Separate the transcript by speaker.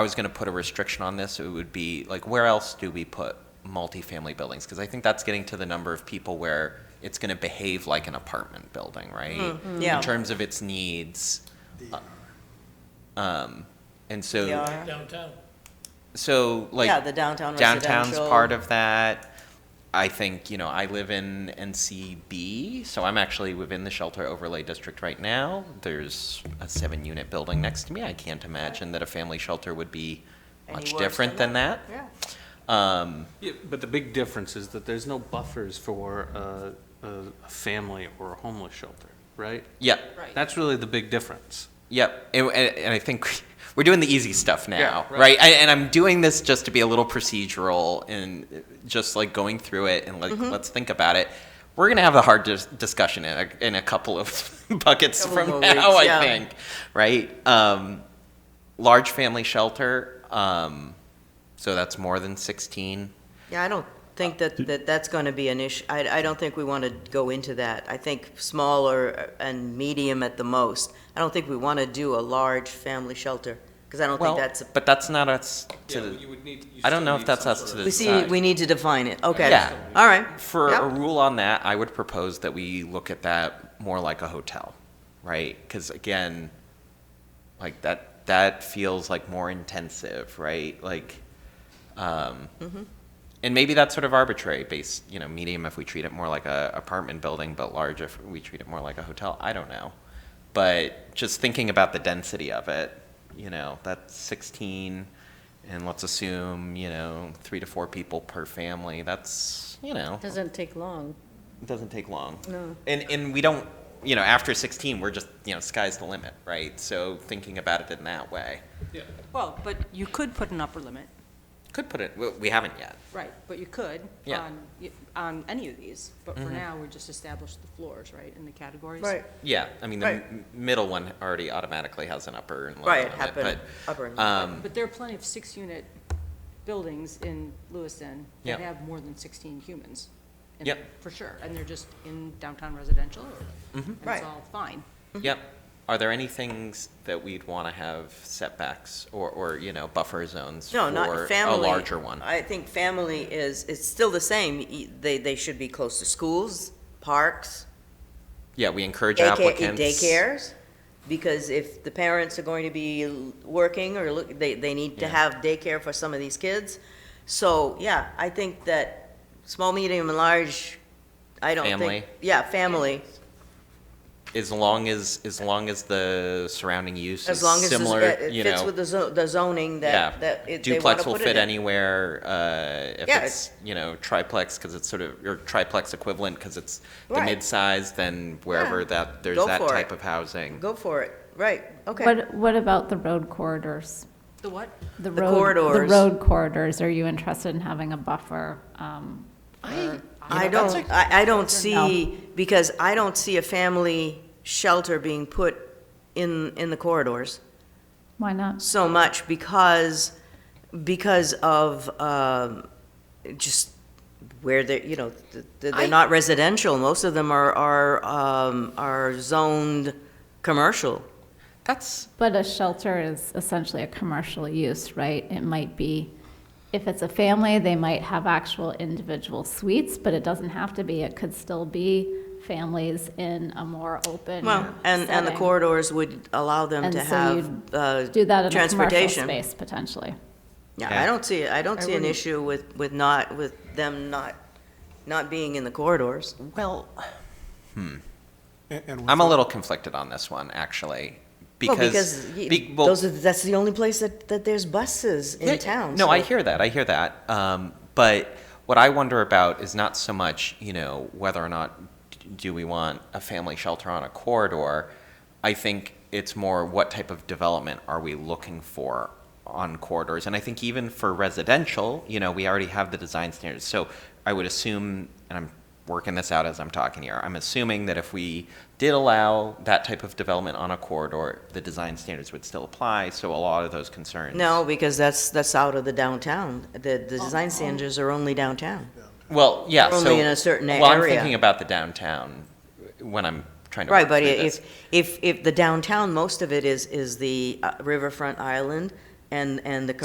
Speaker 1: I was going to put a restriction on this, it would be, like, where else do we put multifamily buildings? Because I think that's getting to the number of people where it's going to behave like an apartment building, right?
Speaker 2: yeah.
Speaker 1: In terms of its needs. Um, and so.
Speaker 2: They are.
Speaker 3: downtown.
Speaker 1: So like
Speaker 2: Yeah, the downtown
Speaker 1: downtown's
Speaker 2: residential.
Speaker 1: part of that. I think you know I live in NCB, so I'm actually within the shelter overlay district right now. There's a seven-unit building next to me. I can't imagine that a family shelter would be
Speaker 2: Any
Speaker 1: much
Speaker 2: worse
Speaker 1: different than that.
Speaker 2: Yeah.
Speaker 1: Um,
Speaker 4: Yeah, but the big difference is that there's no buffers for a, a a family or a homeless shelter, right?
Speaker 1: yeah,
Speaker 5: Right.
Speaker 4: That's really the big difference.
Speaker 1: Yep, and, and and I think we're doing the easy stuff now,
Speaker 4: Yeah,
Speaker 1: right?
Speaker 4: right.
Speaker 1: I, and I'm doing this just to be a little procedural and just like going through it and like
Speaker 2: Mm-hmm.
Speaker 1: let's think about it. We're gonna have a hard dis- discussion in a, in a couple of buckets
Speaker 2: Couple
Speaker 1: from
Speaker 2: more
Speaker 1: now,
Speaker 2: weeks,
Speaker 1: I
Speaker 2: yeah.
Speaker 1: think, right? Um, large family shelter, um, so that's more than 16.
Speaker 2: Yeah, I don't think that, that that's going to be an issue. I, I don't think we want to go into that. I think smaller and medium at the most. I don't think we want to do a large family shelter, because I don't
Speaker 1: Well,
Speaker 2: think that's, a-
Speaker 1: but that's not us to.
Speaker 4: would need.
Speaker 1: I don't know if that's us to
Speaker 2: we see,
Speaker 1: decide.
Speaker 2: we need to define it, okay.
Speaker 1: Yeah.
Speaker 2: All right.
Speaker 1: For
Speaker 2: Yep.
Speaker 1: a rule on that, I would propose that we look at that more like a hotel, right? Because again, like that, that feels like more intensive, right? Like, um, and maybe that's sort of arbitrary based, you know, medium if we treat it more like a apartment building, but large if we treat it more like a hotel. I don't know. But just thinking about the density of it, you know, that's 16, and let's assume, you know, three to four people per family. That's, you know,
Speaker 5: Doesn't take long.
Speaker 1: it doesn't take long.
Speaker 5: No.
Speaker 1: And, and we don't, you know, after 16, we're just, you know, sky's the limit, right? So thinking about it in that way.
Speaker 6: Well, but you could put an upper limit,
Speaker 1: Could put it, we- we haven't yet.
Speaker 6: right, but you could
Speaker 1: Yeah.
Speaker 6: on, y- on any of these. But for now, we just established the floors, right, and the categories.
Speaker 2: Right,
Speaker 1: Yeah, I mean, the
Speaker 2: Right.
Speaker 1: m- middle one already automatically has an upper and lower
Speaker 2: right,
Speaker 1: limit,
Speaker 2: happen,
Speaker 1: but-
Speaker 2: upper. and-
Speaker 1: Um,
Speaker 6: But there are plenty of six-unit buildings in Lewiston
Speaker 1: Yeah.
Speaker 6: that have more than 16 humans. in
Speaker 1: Yep.
Speaker 6: them, For sure, and they're just in downtown residential, or- and
Speaker 2: Right.
Speaker 6: it's all fine.
Speaker 1: yep. Are there any things that we'd want to have setbacks or, or, you know, buffer zones
Speaker 2: No,
Speaker 1: for
Speaker 2: not
Speaker 1: a
Speaker 2: family.
Speaker 1: larger one?
Speaker 2: I think family is, it's still the same. E- They, they should be close to schools, parks,
Speaker 1: Yeah, we encourage
Speaker 2: daycare,
Speaker 1: applicants.
Speaker 2: daycares, because if the parents are going to be l- working or look, they, they need to
Speaker 1: Yeah.
Speaker 2: have daycare for some of these kids. So, yeah, I think that small, medium, and large, I don't think.
Speaker 1: Family.
Speaker 2: Yeah, family,
Speaker 1: As long as, as long as the surrounding use is
Speaker 2: as long as
Speaker 1: similar,
Speaker 2: it it
Speaker 1: you
Speaker 2: fits
Speaker 1: know,
Speaker 2: with the zo- the zoning
Speaker 1: yeah.
Speaker 2: that, that it- they want
Speaker 1: Duplex
Speaker 2: to
Speaker 1: will
Speaker 2: put it in.
Speaker 1: fit anywhere, uh, if
Speaker 2: Yeah,
Speaker 1: it's, you know, triplex, because it's sort of, or triplex equivalent, because it's the
Speaker 2: Right.
Speaker 1: mid-size, then wherever
Speaker 2: Yeah.
Speaker 1: that, there's
Speaker 2: Go
Speaker 1: that
Speaker 2: for it.
Speaker 1: type of housing.
Speaker 2: Go for it, right, okay.
Speaker 7: What, what about the road corridors?
Speaker 6: The what?
Speaker 7: The
Speaker 2: The
Speaker 7: road-
Speaker 2: corridors.
Speaker 7: The road corridors, are you interested in having a buffer? um,
Speaker 2: I don't, I, I don't see, because I don't see a family shelter being put in, in the corridors.
Speaker 7: Why not?
Speaker 2: so much because because of um, just where they're you know th- th- they're not residential. Most of them are are um, are zoned commercial.
Speaker 1: That's,
Speaker 7: But a shelter is essentially a commercial use, right? It might be, if it's a family, they might have actual individual suites, but it doesn't have to be. It could still be families in a more open
Speaker 2: Well, and and the
Speaker 7: setting.
Speaker 2: corridors would allow them
Speaker 7: And
Speaker 2: to
Speaker 7: so
Speaker 2: have
Speaker 7: you'd
Speaker 2: uh,
Speaker 7: Do that in a commercial
Speaker 2: transportation.
Speaker 7: space, potentially.
Speaker 2: Yeah, I don't see I don't see an issue with with not with them not not being in the corridors.
Speaker 1: well,
Speaker 3: And, and
Speaker 1: Hmm. I'm a little conflicted on this one, actually, because.
Speaker 2: well, because y-
Speaker 1: be- well,
Speaker 2: those are, that's the only place that, that there's buses in
Speaker 1: Yeah,
Speaker 2: town.
Speaker 1: No,
Speaker 2: so-
Speaker 1: I hear that. I hear that. Um, but what I wonder about is not so much, you know, whether or not d- do we want a family shelter on a corridor. I think it's more what type of development are we looking for on corridors? And I think even for residential, you know, we already have the design standards. So I would assume, and I'm working this out as I'm talking here, I'm assuming that if we did allow that type of development on a corridor, the design standards would still apply. So a lot of those concerns.
Speaker 2: No, because that's, that's out of the downtown. The, the design standards are only downtown.
Speaker 1: Well, yeah.
Speaker 2: Only
Speaker 1: so-
Speaker 2: in a certain
Speaker 1: well, I'm
Speaker 2: area.
Speaker 1: thinking about the downtown when I'm trying to.
Speaker 2: Right,
Speaker 1: work
Speaker 2: but
Speaker 1: through this.
Speaker 2: if, if, if the downtown, most of it is, is the uh, riverfront island, and, and the